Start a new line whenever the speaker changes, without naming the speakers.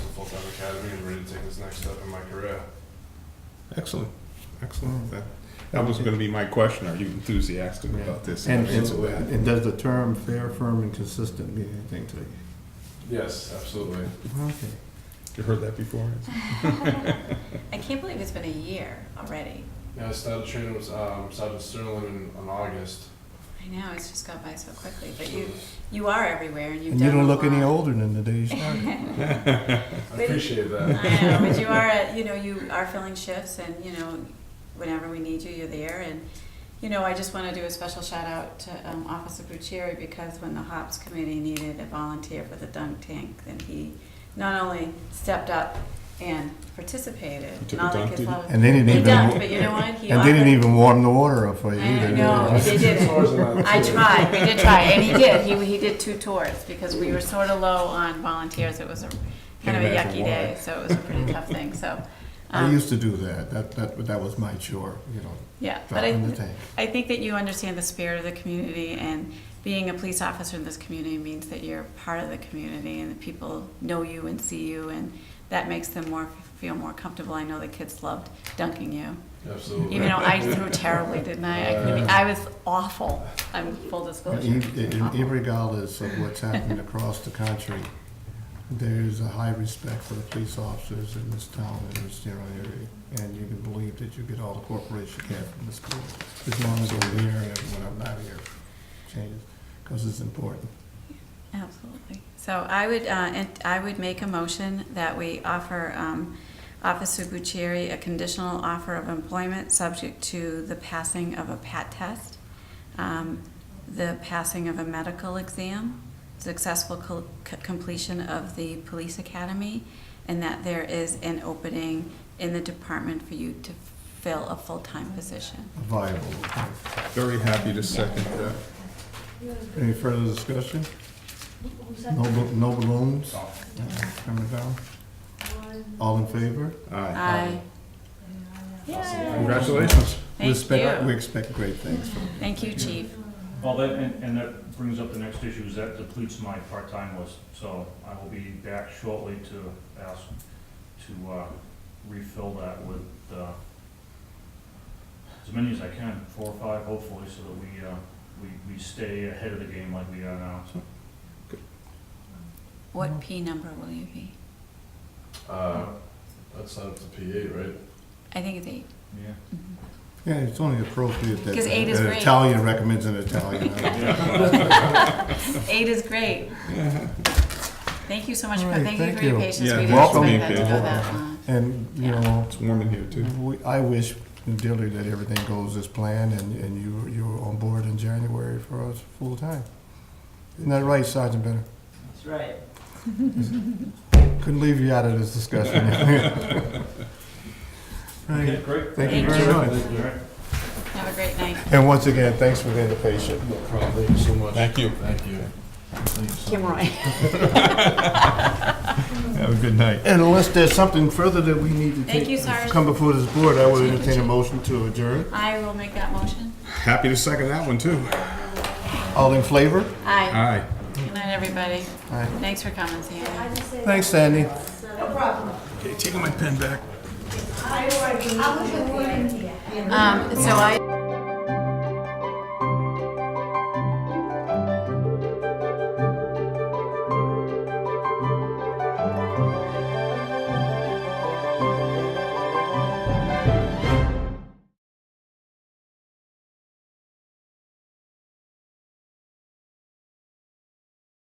academy and ready to take this next step in my career.
Excellent, excellent. That, that was gonna be my question. Are you enthusiastic
Yeah.
about this?
And,
I'll answer
and
that.
and does the term fair, firm, and consistent mean anything to you?
Yes, absolutely.
Okay.
You heard that before?
I can't believe it's been a year already.
Yeah, I started training with um, Sergeant Sterling in, in August.
I know, it's just gone by so quickly, but you, you are everywhere and you've
And
done
you
a
don't look any
lot.
older than the day you started.
I appreciate that.
I know, but you are, at- you know, you are filling shifts and, you know, whenever we need you, you're there. And, you know, I just want to do a special shout out to um, Officer Bucieri because when the HOPS committee needed a volunteer for the dunk tank, then he not only stepped up and participated.
He took
not
a dunk,
like his
didn't he?
little-
And they didn't
He
even,
dunked, but you know
and
what? He
they didn't
offered-
even warm the water up for you
I
either.
know, they did it.
Tours and that,
I
too.
tried, we did try, and he did, he, he did two tours, because we were sort of low on volunteers, it was a, kind of a
Can't imagine
yucky day, so it was a pretty tough thing, so.
I
um,
used to do that, that, that, that was my chore, you know,
Yeah, but
dropping the
I,
tank.
I think that you understand the spirit of the community, and being a police officer in this community means that you're part of the community, and the people know you and see you, and that makes them more, feel more comfortable, I know the kids loved dunking you.
Absolutely.
Even though I threw terribly, didn't I? I couldn't even- I was awful. I'm full disclosure.
Irregardless of what's happening across the country, there is a high respect for the police officers in this town and this general area. And you can believe that you get all the cooperation you can from the school, as long as I'm here and when I'm not here, changes, because it's important.
Absolutely. So I would, uh, and I would make a motion that we offer um, Officer Bucieri a conditional offer of employment subject to the passing of a PAT test, um, the passing of a medical exam, successful co- c- completion of the police academy, and that there is an opening in the department for you to fill a full-time position.
Viable.
Very happy to second that.
Any further discussion?
Who's
No,
that?
bal- no balloons? Coming down?
One.
All in favor?
Aye.
Aye.
Congratulations.
We
Thank
expect-
you.
We expect great things from you.
Thank you, chief.
Well, that, and, and that brings up the next issue, is that depletes my part-time list, so I will be back shortly to ask to, uh, refill that with, uh, as many as I can, four or five hopefully, so that we, uh, we, we stay ahead of the game like we are now.
What P number will you be?
Uh, that's up to P8, right?
I think it's eight.
Yeah.
Yeah, it's only appropriate that
'Cause eight is
an
great.
Italian recommends an Italian.
Eight is great. Thank you so much,
All
for
right,
thank you
thank
for your
you.
patience.
Yeah,
We didn't
welcome.
expect that to go
Welcome.
that long.
And, you
Yeah. Mm-hmm.
know,
It's warm in here too.
we- I wish dearly that everything goes as planned and, and you, you were on board in January for us full time. Isn't that right, Sergeant Bennett?
That's right.
Couldn't leave you out of this discussion.
Okay,
Right.
great.
Thank
you
very much.
All right.
Have a great night.
And once again, thanks for being patient.
No problem. Thank you so much.
Thank you.
Thank you. Thank you so much.
Roy.
Have a good night.
And unless there's something further that we need to
Thank
take,
you, Sarge.
come before this board, I would entertain a motion to adjourn.
I will make that motion.
Happy to second that one too.
All in flavor?
Aye.
Aye. Good night, everybody.
Aye.
Thanks for coming, Sandy.
I just say.
Thanks, Sandy.
Okay, taking my pen back.
I was in here.
Um, so I.